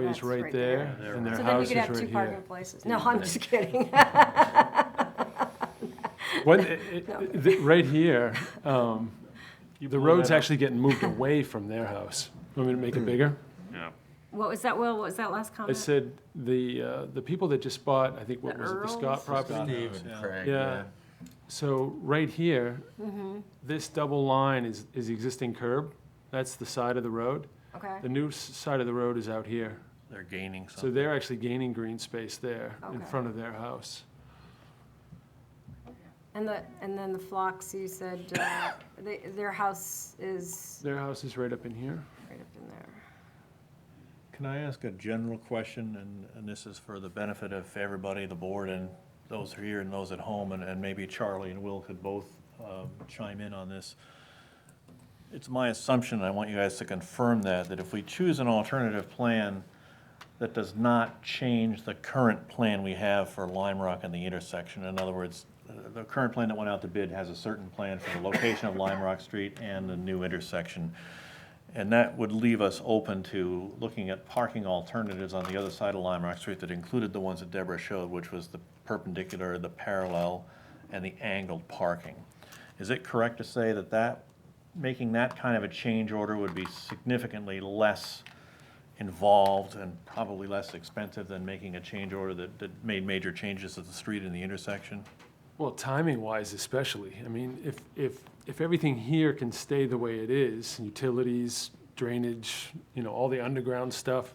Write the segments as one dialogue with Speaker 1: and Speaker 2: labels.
Speaker 1: is
Speaker 2: That's
Speaker 1: right
Speaker 2: right there.
Speaker 1: there, and their
Speaker 2: So then we
Speaker 1: house is
Speaker 2: could have two
Speaker 1: right
Speaker 2: parking
Speaker 1: here.
Speaker 2: places. No, I'm just kidding.
Speaker 1: What, i- i- th- right here, um, the road's actually getting moved away from their house. Want me to make it bigger?
Speaker 2: Uh-huh.
Speaker 3: Yeah.
Speaker 2: What was that, Will? What was that last
Speaker 1: I
Speaker 2: comment?
Speaker 1: said, the, uh, the people that just bought, I think, what
Speaker 2: The
Speaker 1: was it, the
Speaker 2: Earls?
Speaker 1: Scott property?
Speaker 4: Steve and Craig,
Speaker 1: Yeah. So right here,
Speaker 2: Mm-hmm.
Speaker 1: this double line is, is the existing curb. That's the side of the road.
Speaker 2: Okay,
Speaker 1: The new s- side of the road is out here.
Speaker 3: They're gaining
Speaker 1: So
Speaker 3: something.
Speaker 1: they're actually gaining green space there in
Speaker 2: Okay.
Speaker 1: front of their house.
Speaker 2: and the, and then the flocks, you said, uh, they, their house is
Speaker 1: Their house is right up in here.
Speaker 2: right up in there.
Speaker 3: Can I ask a general question, and, and this is for the benefit of everybody, the board, and those here and those at home, and, and maybe Charlie and Will could both um, chime in on this. It's my assumption, and I want you guys to confirm that, that if we choose an alternative plan that does not change the current plan we have for Lime Rock and the intersection, in other words, uh, the current plan that went out to bid has a certain plan for the location of Lime Rock Street and the new intersection. And that would leave us open to looking at parking alternatives on the other side of Lime Rock Street that included the ones that Deborah showed, which was the perpendicular, the parallel, and the angled parking. Is it correct to say that that, making that kind of a change order would be significantly less involved and probably less expensive than making a change order that, that made major changes to the street and the intersection?
Speaker 1: Well, timing wise especially, I mean, if, if, if everything here can stay the way it is, utilities, drainage, you know, all the underground stuff,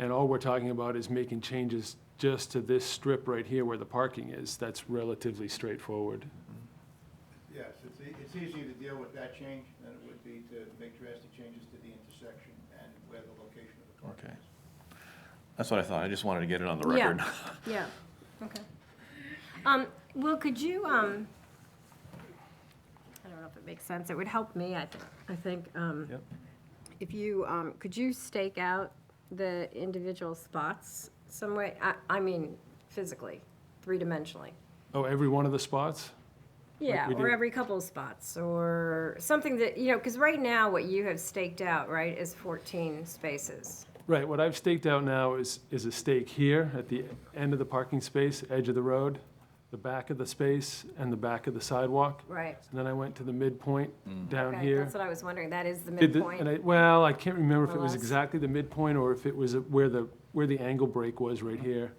Speaker 1: and all we're talking about is making changes just to this strip right here where the parking is, that's relatively straightforward.
Speaker 5: Yes, it's, e- it's easier to deal with that change than it would be to make drastic changes to the intersection and where the location of the parking
Speaker 3: Okay.
Speaker 5: is.
Speaker 3: That's what I thought, I just wanted to get it on the
Speaker 2: Yeah.
Speaker 3: record.
Speaker 2: Yeah, okay. Um, Will, could you, um, I don't know if it makes sense, it would help me, I, think- I think, um,
Speaker 3: Yep.
Speaker 2: if you, um, could you stake out the individual spots some way? I, I mean, physically, three-dimensionally.
Speaker 1: Oh, every one of the spots?
Speaker 2: Yeah,
Speaker 1: we
Speaker 2: or
Speaker 1: do.
Speaker 2: every couple of spots, or something that, you know, because right now, what you have staked out, right, is 14 spaces.
Speaker 1: Right, what I've staked out now is, is a stake here at the end of the parking space, edge of the road, the back of the space, and the back of the sidewalk.
Speaker 2: Right.
Speaker 1: And then I went to the midpoint down
Speaker 2: Okay,
Speaker 1: here.
Speaker 2: that's what I was wondering, that is the
Speaker 1: Did the-
Speaker 2: midpoint.
Speaker 1: And I, well, I can't remember if it
Speaker 2: Or
Speaker 1: was
Speaker 2: less.
Speaker 1: exactly the midpoint or if it was where the, where the angle break was right here.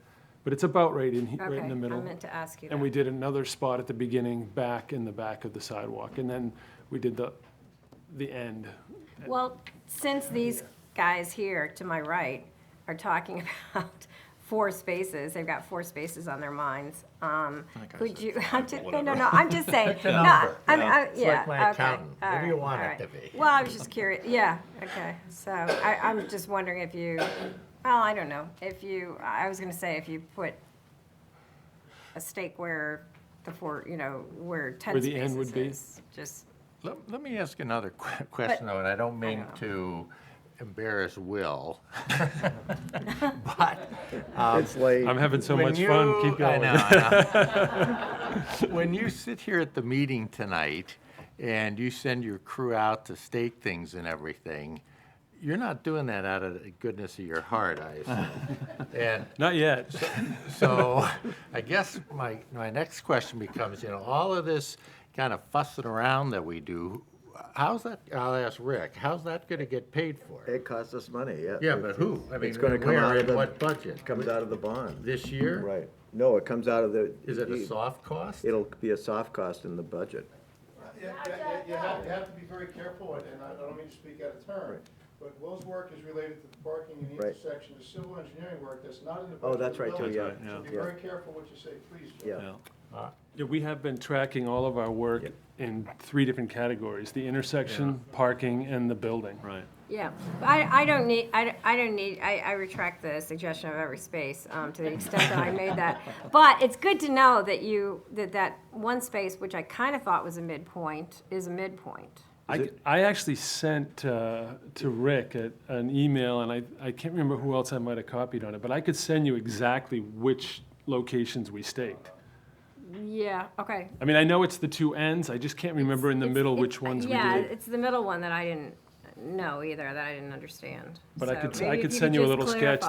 Speaker 1: But it's about right in, he- right in
Speaker 2: Okay,
Speaker 1: the middle.
Speaker 2: I meant to ask you that.
Speaker 1: And we did another spot at the beginning, back in the back of the sidewalk. And then we did the, the end.
Speaker 2: Well, since these guys here to my right are talking about four spaces, they've got four spaces on their minds, um, could you, I'm just, no, no, no, I'm just saying. No,
Speaker 4: number,
Speaker 2: I'm,
Speaker 4: you know?
Speaker 2: I-
Speaker 4: It's like
Speaker 2: yeah, okay.
Speaker 4: my accountant. What do
Speaker 2: all
Speaker 4: you
Speaker 2: right,
Speaker 4: want
Speaker 2: all
Speaker 4: it
Speaker 2: right.
Speaker 4: to be?
Speaker 2: Well, I was just curious, yeah, okay, so I, I'm just wondering if you, well, I don't know, if you, I was gonna say if you put a stake where the four, you know, where ten
Speaker 1: Where
Speaker 2: spaces
Speaker 1: the end would be?
Speaker 2: is, Just,
Speaker 4: Let, let me ask another que- question though, and I don't mean
Speaker 2: know.
Speaker 4: to embarrass Will. But um,
Speaker 6: It's late.
Speaker 1: I'm having so
Speaker 4: when
Speaker 1: much fun,
Speaker 4: you-
Speaker 1: keep
Speaker 4: I
Speaker 1: going.
Speaker 4: know, I know. When you sit here at the meeting tonight and you send your crew out to stake things and everything, you're not doing that out of the goodness of your heart, I assume. And
Speaker 1: Not yet.
Speaker 4: so I guess my, my next question becomes, you know, all of this kind of fussing around that we do, how's that, I'll ask Rick, how's that gonna get paid for?
Speaker 6: It costs us money, yeah.
Speaker 4: Yeah, but who? I mean,
Speaker 6: It's gonna come
Speaker 4: where
Speaker 6: out of
Speaker 4: and
Speaker 6: the-
Speaker 4: What budget?
Speaker 6: It Comes out of the bond,
Speaker 4: This year?
Speaker 6: right. No, it comes out of the.
Speaker 4: Is it a soft cost?
Speaker 6: It'll be a soft cost in the budget.
Speaker 5: Uh, Yeah, yeah, yeah, You have, you have to be very careful, and I don't mean to speak out of turn, but Will's work is related to the parking and the
Speaker 6: Right.
Speaker 5: intersection, the civil engineering work that's not in the.
Speaker 6: Oh,
Speaker 5: budget
Speaker 6: that's
Speaker 5: of the
Speaker 6: right, too,
Speaker 5: village.
Speaker 6: yeah.
Speaker 5: So Be
Speaker 6: Yeah,
Speaker 5: very careful what you say, please, Joe.
Speaker 6: yeah.
Speaker 3: Yeah.
Speaker 1: Yeah, we have been tracking all of our work in three different categories, the intersection, parking, and the building.
Speaker 3: Right.
Speaker 2: Yeah, But I, I don't need, I, don't- I don't need, I, I retract the suggestion of every space, um, to the extent that I made that. But it's good to know that you, that that one space, which I kind of thought was a midpoint, is a midpoint.
Speaker 1: I, I actually sent uh, to Rick a- an email, and I, I can't remember who else I might have copied on it, but I could send you exactly which locations we staked.
Speaker 2: Yeah, okay.
Speaker 1: I mean, I know it's the two ends, I just can't remember in the
Speaker 2: It's-
Speaker 1: middle
Speaker 2: it's-
Speaker 1: which ones we
Speaker 2: Yeah,
Speaker 1: did.
Speaker 2: it's the middle one that I didn't know either, that I didn't understand.
Speaker 1: But I
Speaker 2: So
Speaker 1: could s-
Speaker 2: maybe
Speaker 1: I
Speaker 2: if
Speaker 1: could
Speaker 2: you
Speaker 1: send you a
Speaker 2: just
Speaker 1: little
Speaker 2: clarify.
Speaker 1: sketch